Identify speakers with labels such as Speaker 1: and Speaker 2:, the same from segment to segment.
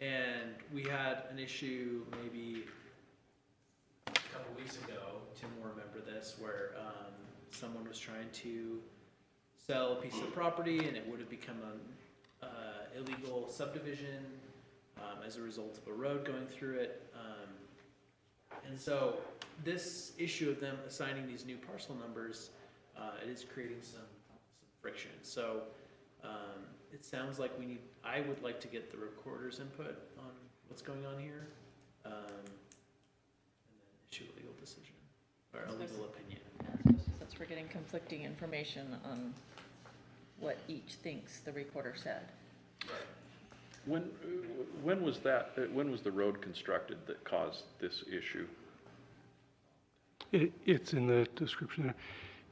Speaker 1: And we had an issue maybe a couple weeks ago, Tim will remember this, where um, someone was trying to sell a piece of property and it would have become an uh, illegal subdivision um, as a result of a road going through it. Um, and so this issue of them assigning these new parcel numbers, uh, it is creating some, some friction. So um, it sounds like we need, I would like to get the recorder's input on what's going on here. um, And then issue a legal decision, or a legal opinion.
Speaker 2: Since we're getting conflicting information on what each thinks the recorder said.
Speaker 3: When, uh, when was that, uh, when was the road constructed that caused this issue?
Speaker 4: It, it's in the description there.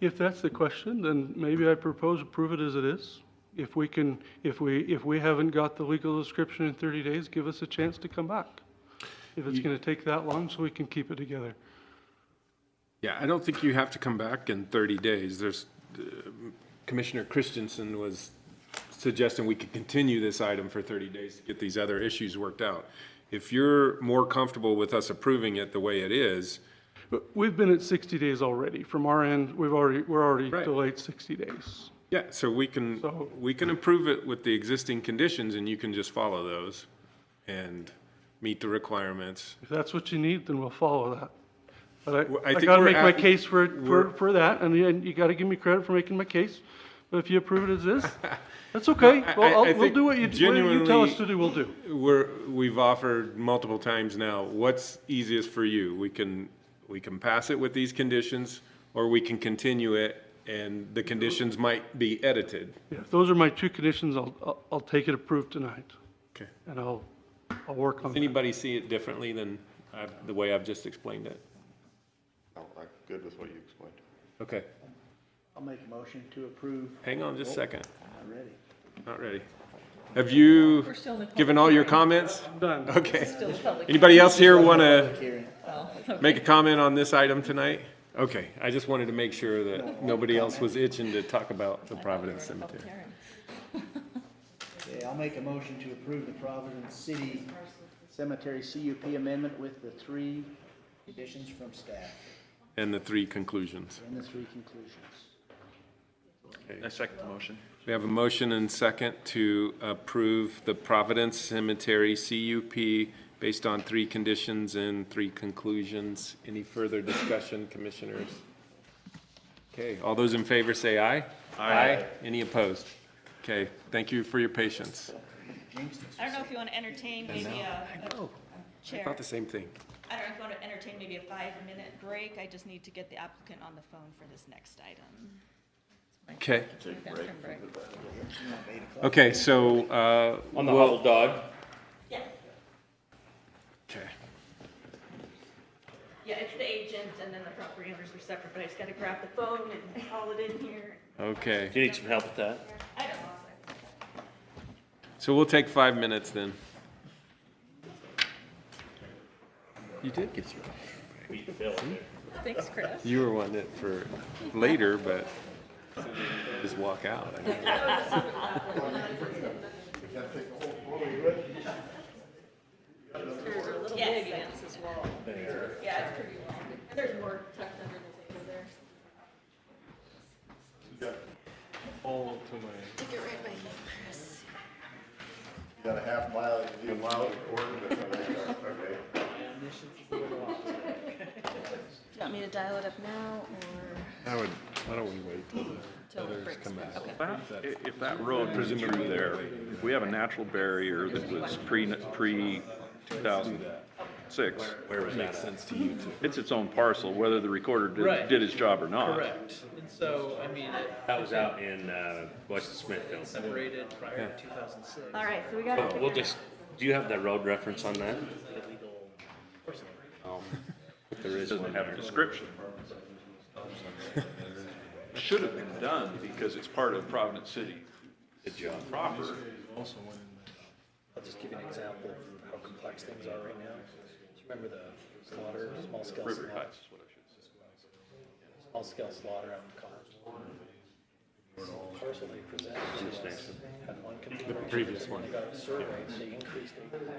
Speaker 4: If that's the question, then maybe I propose approve it as it is. If we can, if we, if we haven't got the legal description in 30 days, give us a chance to come back. If it's going to take that long, so we can keep it together.
Speaker 5: Yeah, I don't think you have to come back in 30 days. There's, uh, Commissioner Christensen was suggesting we could continue this item for 30 days to get these other issues worked out. If you're more comfortable with us approving it the way it is,
Speaker 4: But we've been at 60 days already. From our end, we've already, we're already
Speaker 5: Right.
Speaker 4: delayed 60 days.
Speaker 5: yeah, so we can,
Speaker 4: So-
Speaker 5: we can approve it with the existing conditions and you can just follow those and meet the requirements.
Speaker 4: If that's what you need, then we'll follow that. But
Speaker 5: Well, I
Speaker 4: I, I
Speaker 5: think
Speaker 4: gotta
Speaker 5: we're
Speaker 4: make my
Speaker 5: at-
Speaker 4: case for, it- for,
Speaker 5: we're-
Speaker 4: for that, and you- and you gotta give me credit for making my case. But if you approve it as is, that's okay.
Speaker 5: I- I-
Speaker 4: Well,
Speaker 5: I
Speaker 4: I'll, we'll
Speaker 5: think
Speaker 4: do what you, what you tell us
Speaker 5: genuinely-
Speaker 4: to do, we'll do.
Speaker 5: We're, we've offered multiple times now, what's easiest for you? We can, we can pass it with these conditions, or we can continue it, and the conditions might be edited.
Speaker 4: Yeah, If those are my two conditions, I'll, I'll, I'll take it approved tonight,
Speaker 5: Okay.
Speaker 4: and I'll, I'll work on it.
Speaker 5: Anybody see it differently than I've- the way I've just explained it?
Speaker 6: No, I'm good with what you explained.
Speaker 5: Okay,
Speaker 7: I'll make a motion to approve.
Speaker 5: hang on just a second,
Speaker 7: Not ready.
Speaker 5: not ready. Have you
Speaker 2: We're still in the public
Speaker 5: given all your
Speaker 2: hearing.
Speaker 5: comments?
Speaker 4: Done.
Speaker 5: Okay.
Speaker 2: Still a public
Speaker 5: Anybody else here want to?
Speaker 7: Hearing.
Speaker 2: Well,
Speaker 5: make a comment on this item tonight? Okay, I just wanted to make sure that nobody else was itching to talk about the Providence
Speaker 2: we're in a public
Speaker 5: Cemetery.
Speaker 2: hearing.
Speaker 7: Okay, I'll make a motion to approve the Providence City Cemetery CUP amendment with the three conditions from staff
Speaker 5: And the three conclusions.
Speaker 7: and the three conclusions.
Speaker 3: I second the motion.
Speaker 5: We have a motion and second to approve the Providence Cemetery CUP based on three conditions and three conclusions. Any further discussion, commissioners? Okay, all those in favor say aye. Aye. Any opposed? Okay, thank you for your patience.
Speaker 8: I don't know if you want to entertain maybe a, a
Speaker 5: I
Speaker 8: chair. I
Speaker 5: thought the same thing.
Speaker 8: don't know if you want to entertain maybe a five-minute break. I just need to get the applicant on the phone for this next item.
Speaker 5: Okay,
Speaker 2: Bathroom break.
Speaker 5: okay, so, uh.
Speaker 3: On the
Speaker 5: we'll-
Speaker 3: hobble dog.
Speaker 5: Okay.
Speaker 8: Yeah, it's the agent and then the property owners are separate, but I just got to grab the phone and call it in here.
Speaker 5: Okay,
Speaker 3: Do you need some help with that?
Speaker 8: I don't know.
Speaker 5: so we'll take five minutes then. You did get your,
Speaker 2: Thanks, Chris.
Speaker 5: you were wanting it for later, but just walk out. I mean.
Speaker 2: There's a little
Speaker 8: Yes.
Speaker 2: big against this wall.
Speaker 8: Yeah, it's pretty long. And there's more tucked under the table there.
Speaker 6: You got a half mile, you need a mile ordinance, okay?
Speaker 8: Do you want me to dial it up now or
Speaker 5: I would, why don't we wait till
Speaker 8: till the break's? Okay.
Speaker 3: If that road was through there, we have a natural barrier that was pre, pre 2006.
Speaker 5: Where it makes sense to you to.
Speaker 3: It's its own parcel, whether the recorder
Speaker 1: Right.
Speaker 3: did, did his job or not.
Speaker 1: Correct. And so, I mean, it
Speaker 9: That was out in uh, West Smithfield.
Speaker 1: separated prior to 2006.
Speaker 8: All right, so we got to
Speaker 9: We'll just, do you have the road reference on that?
Speaker 3: There is Doesn't have a description. Should have been done because it's part of Providence City. Good job. Proper.
Speaker 10: I'll just give you an example of how complex things are right now. Do you Remember the slaughter, small scale
Speaker 3: River
Speaker 10: slaughter,
Speaker 3: Heights is what I should say.
Speaker 10: small scale slaughter out in College? The Parcel they presented to us had one configuration.
Speaker 5: previous one.
Speaker 10: They got a survey, they increased it.